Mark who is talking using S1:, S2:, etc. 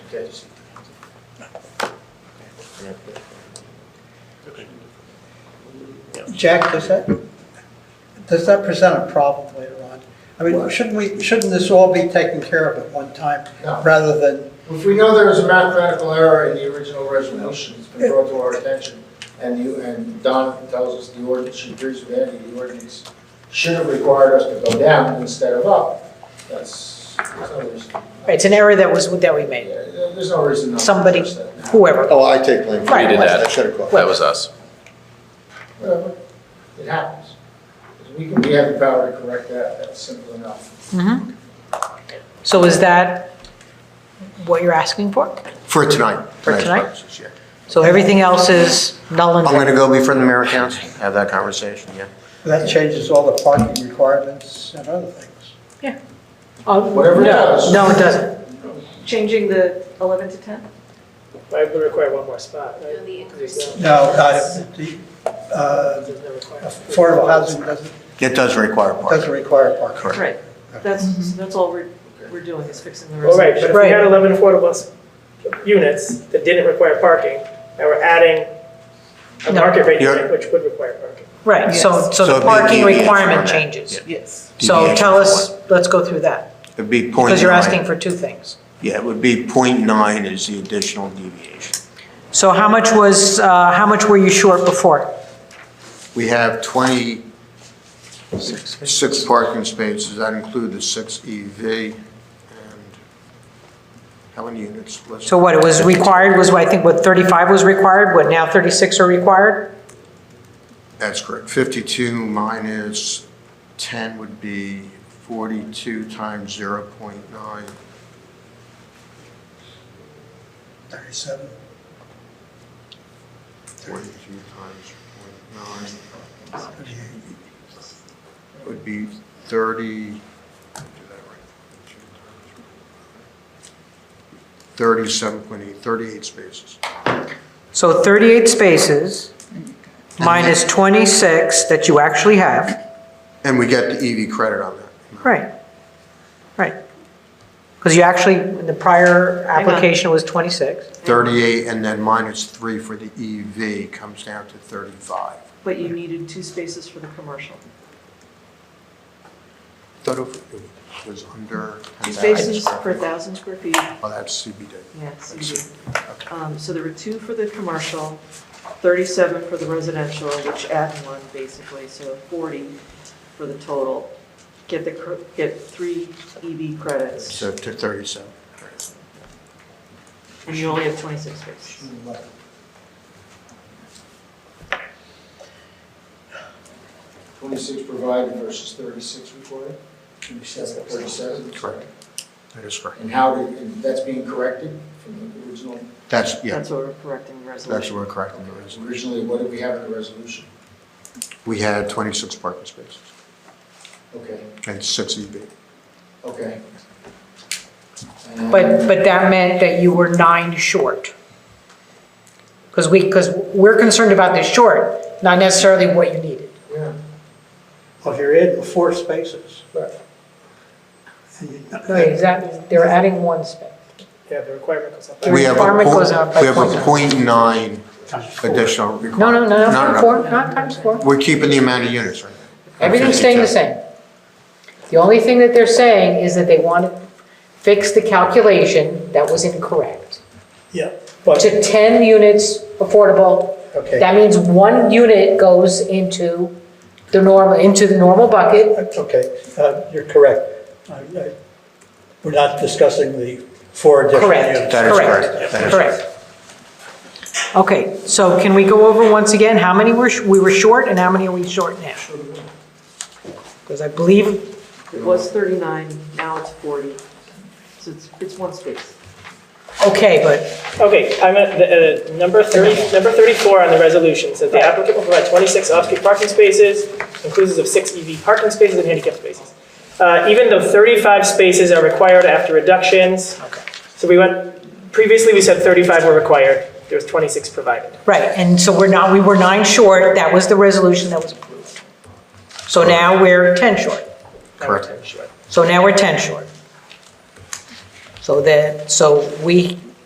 S1: Yes.
S2: Jack, does that, does that present a problem later on? I mean, shouldn't we, shouldn't this all be taken care of at one time,
S1: No.
S2: rather than,
S1: If we know there was a mathematical error in the original resolution, it's been brought to our attention, and you, and Don tells us the ordinance, she agrees with Andy, the ordinance should have required us to go down instead of up. That's, there's no reason.
S3: It's an error that was, that we made.
S1: Yeah, there- There's no reason. not to
S3: Somebody-
S1: address that now.
S3: Whoever,
S4: Oh, I take blame for
S3: Right.
S4: it.
S3: We did
S4: I
S5: that.
S4: should have called.
S5: That was us.
S1: Whatever, it happens. We can, we have the power to correct that, that's simple enough.
S3: so is that what you're asking for?
S4: For tonight.
S3: For
S4: tonight's
S3: tonight?
S4: purposes, yeah.
S3: So everything else is null and
S4: I'm going to
S3: void?
S4: go before the mayor and council, have that conversation, yeah.
S2: that changes all the parking requirements and other things?
S3: Oh,
S1: Whatever it
S3: no.
S1: does.
S3: No, it doesn't.
S6: Changing the 11 to 10?
S7: I would require one more spot, right?
S8: No, the
S7: Because there's
S2: No,
S7: no-
S2: uh, the, uh,
S7: there's no requirement.
S2: affordable housing doesn't,
S4: It does require parking.
S2: doesn't require parking.
S4: Correct.
S6: Right.
S3: Mm-hmm.
S6: That's, that's all we're, we're doing is fixing the
S7: Well, right,
S6: resolution.
S7: but if we had 11 affordable s- units that didn't require parking, and we're adding a
S3: No.
S7: market rate
S4: You're-
S7: unit which would require parking.
S3: Right, so,
S6: Yes.
S4: So
S3: so the
S4: it'd be
S3: parking
S4: deviation from
S3: requirement
S4: that.
S3: changes.
S6: Yes.
S3: So
S4: Deviation
S3: tell
S4: from
S3: us, let's go through that,
S4: It'd be point nine.
S3: because you're asking for two things.
S4: Yeah, it would be point nine is the additional deviation.
S3: So how much was, uh, how much were you short before?
S4: We have twenty-six parking spaces, that include the six EV and how many units was?
S3: So what, it was required, was what, I think what, 35 was required, what, now 36 are required?
S4: That's correct. Fifty-two minus ten would be forty-two times zero point nine.
S2: 37.
S4: Forty-two times point nine. would be 30, 37.8, 38 spaces.
S3: So 38 spaces minus 26 that you actually have,
S4: And we get the EV credit on that.
S3: right, right. Because you actually, the prior
S6: Hang on.
S3: application was 26,
S4: 38 and then minus 3 for the EV comes down to 35.
S6: But you needed two spaces for the commercial.
S4: Thought it was under
S6: Two
S4: 10,000.
S6: spaces
S4: square
S6: per
S4: feet.
S6: 1,000 square feet.
S4: Oh, that's CBD.
S6: Yes,
S4: That's
S6: you
S4: it.
S6: do. Um, So there were two for the commercial, 37 for the residential, which add one basically, so 40 for the total. Get the, cr- get three EV credits,
S4: So to 37.
S6: and you only have 26 spaces.
S1: Twenty-six provided versus thirty-six required?
S2: Thirty-seven.
S1: Thirty-seven?
S4: Correct. That is correct.
S1: And how did, and that's being corrected from the original,
S4: That's, yeah,
S6: That's what we're correcting the resolution.
S4: that's what we're correcting. the resolution.
S1: originally, what did we have in the resolution?
S4: We had 26 parking spaces
S1: Okay,
S4: and E 6 EV.
S1: okay.
S3: but, but that meant that you were nine short. Because we, because we're concerned about the short, not necessarily what you needed.
S1: Yeah,
S2: Well, if you're in four spaces.
S7: Right.
S2: and you-
S3: Right, exactly, they're adding one space.
S7: Yeah, the requirement goes up.
S3: The
S4: We have a
S3: requirement
S4: point-
S3: goes up by
S4: We have a
S3: 0.9.
S4: point nine
S2: times four.
S4: additional
S3: No,
S4: requirement.
S3: no, no, not four, not times four.
S4: We're keeping the amount of units, right?
S3: Everything's staying the same. The only thing that they're saying is that they want to fix the calculation that was incorrect.
S7: Yeah, but
S3: To 10 units affordable,
S2: Okay,
S3: that means one unit goes into the normal, into the normal bucket.
S2: that's okay, Uh, you're correct. I- I- We're not discussing the four different
S3: Correct,
S2: units.
S3: correct.
S4: That is correct. That is
S3: Correct. Okay, so can we go over once again, how many were, sh- we were short and how many are we short now? Because I believe,
S6: It was 39, now it's 40, so it's, it's one space.
S3: okay, but
S7: Okay, I'm at the, uh, number thirty, number thirty-four on the resolution, says the applicant will provide twenty-six off-street parking spaces, inclusive of six EV parking spaces and handicap spaces. Uh, even though thirty-five spaces are required after reductions, so we went, previously we said thirty-five were required, there was twenty-six provided.
S3: Right, and so we're not, we were nine short, that was the resolution that was approved. So now we're 10 short.
S7: Now we're
S4: Correct.
S7: ten short.
S3: So now we're 10 short. So that, so we,